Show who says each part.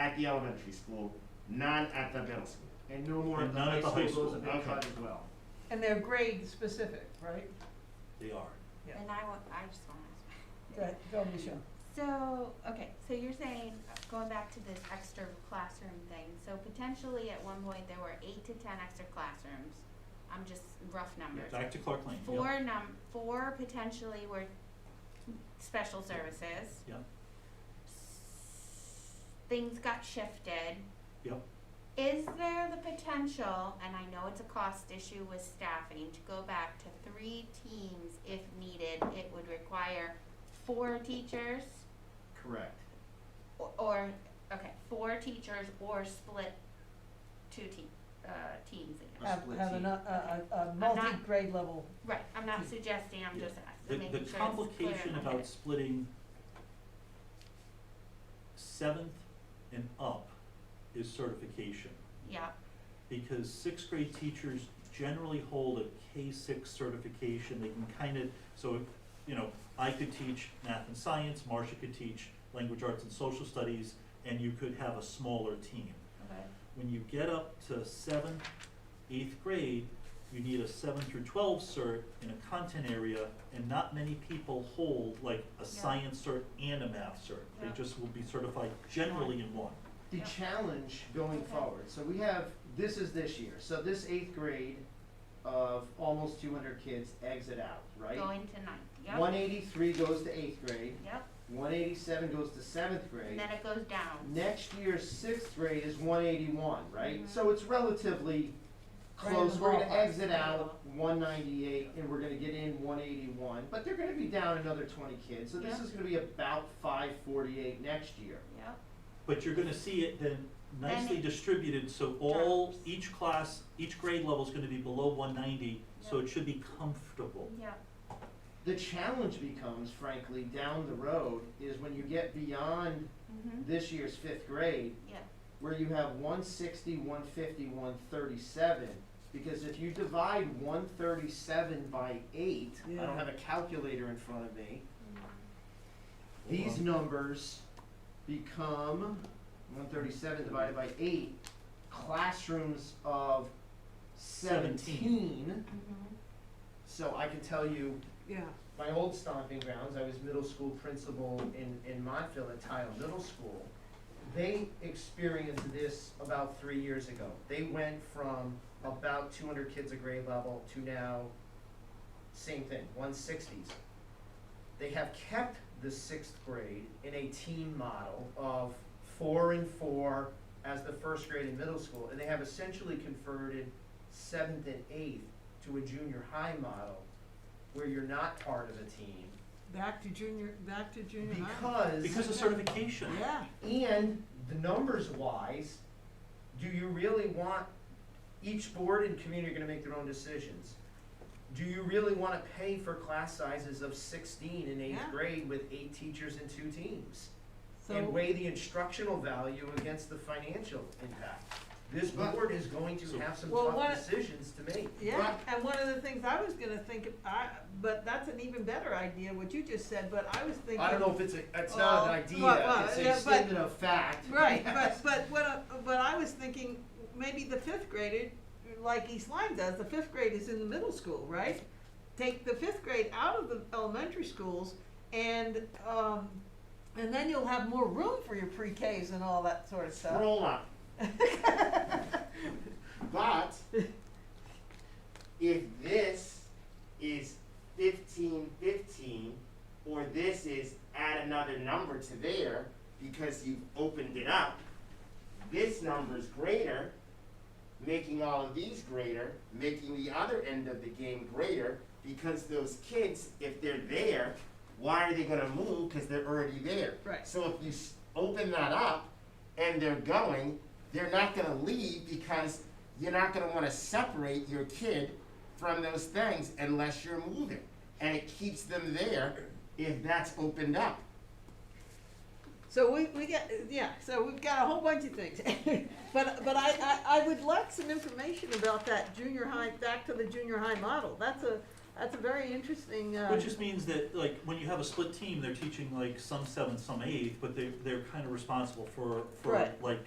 Speaker 1: at the elementary school, none at the middle school.
Speaker 2: And no more
Speaker 3: And
Speaker 2: at the
Speaker 3: none
Speaker 2: high
Speaker 3: at the
Speaker 2: school
Speaker 3: high
Speaker 2: goes a
Speaker 3: school.
Speaker 2: big
Speaker 1: Okay.
Speaker 2: cut as well.
Speaker 4: And they're grade specific, right?
Speaker 3: They are.
Speaker 4: Yeah.
Speaker 5: And I want, I just want to.
Speaker 4: Go ahead, go, Michelle.
Speaker 5: So, okay, so you're saying, going back to this extra classroom thing, so potentially at one point there were eight to ten extra classrooms. I'm just rough numbers.
Speaker 3: Back to Clark Lane, yep,
Speaker 5: Four num, four potentially were special services.
Speaker 3: yep,
Speaker 5: Things got shifted.
Speaker 3: yep.
Speaker 5: Is there the potential, and I know it's a cost issue with staffing, to go back to three teams if needed? It would require four teachers?
Speaker 1: Correct.
Speaker 5: Or- or, okay, four teachers or split two te- uh, teams again.
Speaker 4: Have, have a, a, a- a
Speaker 5: not-
Speaker 4: multi-grade level,
Speaker 5: Right, I'm not suggesting, I'm just
Speaker 3: The,
Speaker 5: asking,
Speaker 3: the
Speaker 5: making sure it's clear.
Speaker 3: complication
Speaker 5: Okay.
Speaker 3: about splitting seventh and up is certification.
Speaker 5: Yeah,
Speaker 3: because sixth grade teachers generally hold a K six certification, they can kind of, so, you know, I could teach math and science, Marcia could teach language arts and social studies, and you could have a smaller team.
Speaker 5: okay,
Speaker 3: When you get up to seventh, eighth grade, you need a seven through twelve cert in a content area, and not many people hold like a science cert and a math cert. They
Speaker 5: Yeah.
Speaker 3: just will be certified generally in one.
Speaker 1: The
Speaker 5: Yeah.
Speaker 1: challenge going
Speaker 5: Okay.
Speaker 1: forward, so we have, this is this year, so this eighth grade of almost two hundred kids exit out, right?
Speaker 5: going to ninth, yep,
Speaker 1: One eighty-three goes to eighth grade,
Speaker 5: yep,
Speaker 1: one eighty-seven goes to seventh grade.
Speaker 5: and then it goes down.
Speaker 1: Next year's sixth grade is one eighty-one, right?
Speaker 5: Mhm.
Speaker 1: So it's relatively
Speaker 4: Right in
Speaker 1: close,
Speaker 4: the
Speaker 1: we're gonna
Speaker 4: ballpark.
Speaker 1: exit out one ninety-eight and we're gonna get in one eighty-one, but they're gonna be down another twenty kids, so this
Speaker 5: Yeah.
Speaker 1: is gonna be about five forty-eight next year.
Speaker 5: Yep,
Speaker 3: But you're gonna see it then nicely
Speaker 5: it
Speaker 3: distributed, so all,
Speaker 5: drops.
Speaker 3: each class, each grade level's gonna be below one ninety, so
Speaker 5: Yep.
Speaker 3: it should be comfortable.
Speaker 5: yep,
Speaker 1: The challenge becomes frankly, down the road, is when you get beyond
Speaker 5: mhm,
Speaker 1: this year's fifth grade,
Speaker 5: yep,
Speaker 1: where you have 160, 150, 137, because if you divide 137 by 8, I
Speaker 4: Yeah.
Speaker 1: don't have a calculator in front of me,
Speaker 5: mhm,
Speaker 1: these
Speaker 3: Um,
Speaker 1: numbers become 137 divided by 8, classrooms of 17.
Speaker 5: mhm,
Speaker 1: So I can tell you
Speaker 4: yeah.
Speaker 1: my old stomping grounds, I was middle school principal in, in Montville at Tile Middle School. They experienced this about three years ago. They went from about two hundred kids a grade level to now, same thing, one sixties. They have kept the sixth grade in a team model of four and four as the first grade in middle school, and they have essentially converted seventh and eighth to a junior high model where you're not part of a team
Speaker 6: Back to junior, back to junior high.
Speaker 1: because,
Speaker 3: Because of certification,
Speaker 6: Yeah,
Speaker 1: and the numbers wise do you really want each board and community are going to make their own decisions do you really want to pay for class sizes of 16 in eighth
Speaker 6: Yeah.
Speaker 1: grade with eight teachers and two teams and
Speaker 6: so,
Speaker 1: weigh the instructional value against the financial impact this
Speaker 6: But-
Speaker 1: board is going to
Speaker 3: So-
Speaker 1: have some
Speaker 6: Well,
Speaker 1: tough
Speaker 6: what-
Speaker 1: decisions to make
Speaker 6: yeah, and one of the things I was gonna think, of- I, but that's an even better idea, what you just said, but I was thinking.
Speaker 1: I don't know if it's a, it's not an
Speaker 6: Well,
Speaker 1: idea,
Speaker 6: well, well,
Speaker 1: it's a
Speaker 6: yeah, but-
Speaker 1: statement of fact.
Speaker 6: Right, but, but what, I- but I was thinking, maybe the fifth grader, like East Lyme does, the fifth grade is in the middle school, right? Take the fifth grade out of the elementary schools and, um, and then you'll have more room for your pre-Ks and all that sort of stuff.
Speaker 1: Roll up. But if this is fifteen fifteen, or this is add another number to there because you've opened it up, this number's greater, making all of these greater, making the other end of the game greater, because those kids, if they're there, why are they gonna move? Cause they're already there.
Speaker 6: Right.
Speaker 1: So if you s- open that up and they're going, they're not gonna leave because you're not gonna wanna separate your kid from those things unless you're moving. And it keeps them there if that's opened up.
Speaker 6: So we, we get, yeah, so we've got a whole bunch of things. But, but I, I, I would like some information about that junior high, back to the junior high model. That's a, that's a very interesting, uh.
Speaker 3: Which just means that, like, when you have a split team, they're teaching like some seventh, some eighth, but they, they're kind of responsible for, for
Speaker 6: Right.
Speaker 3: like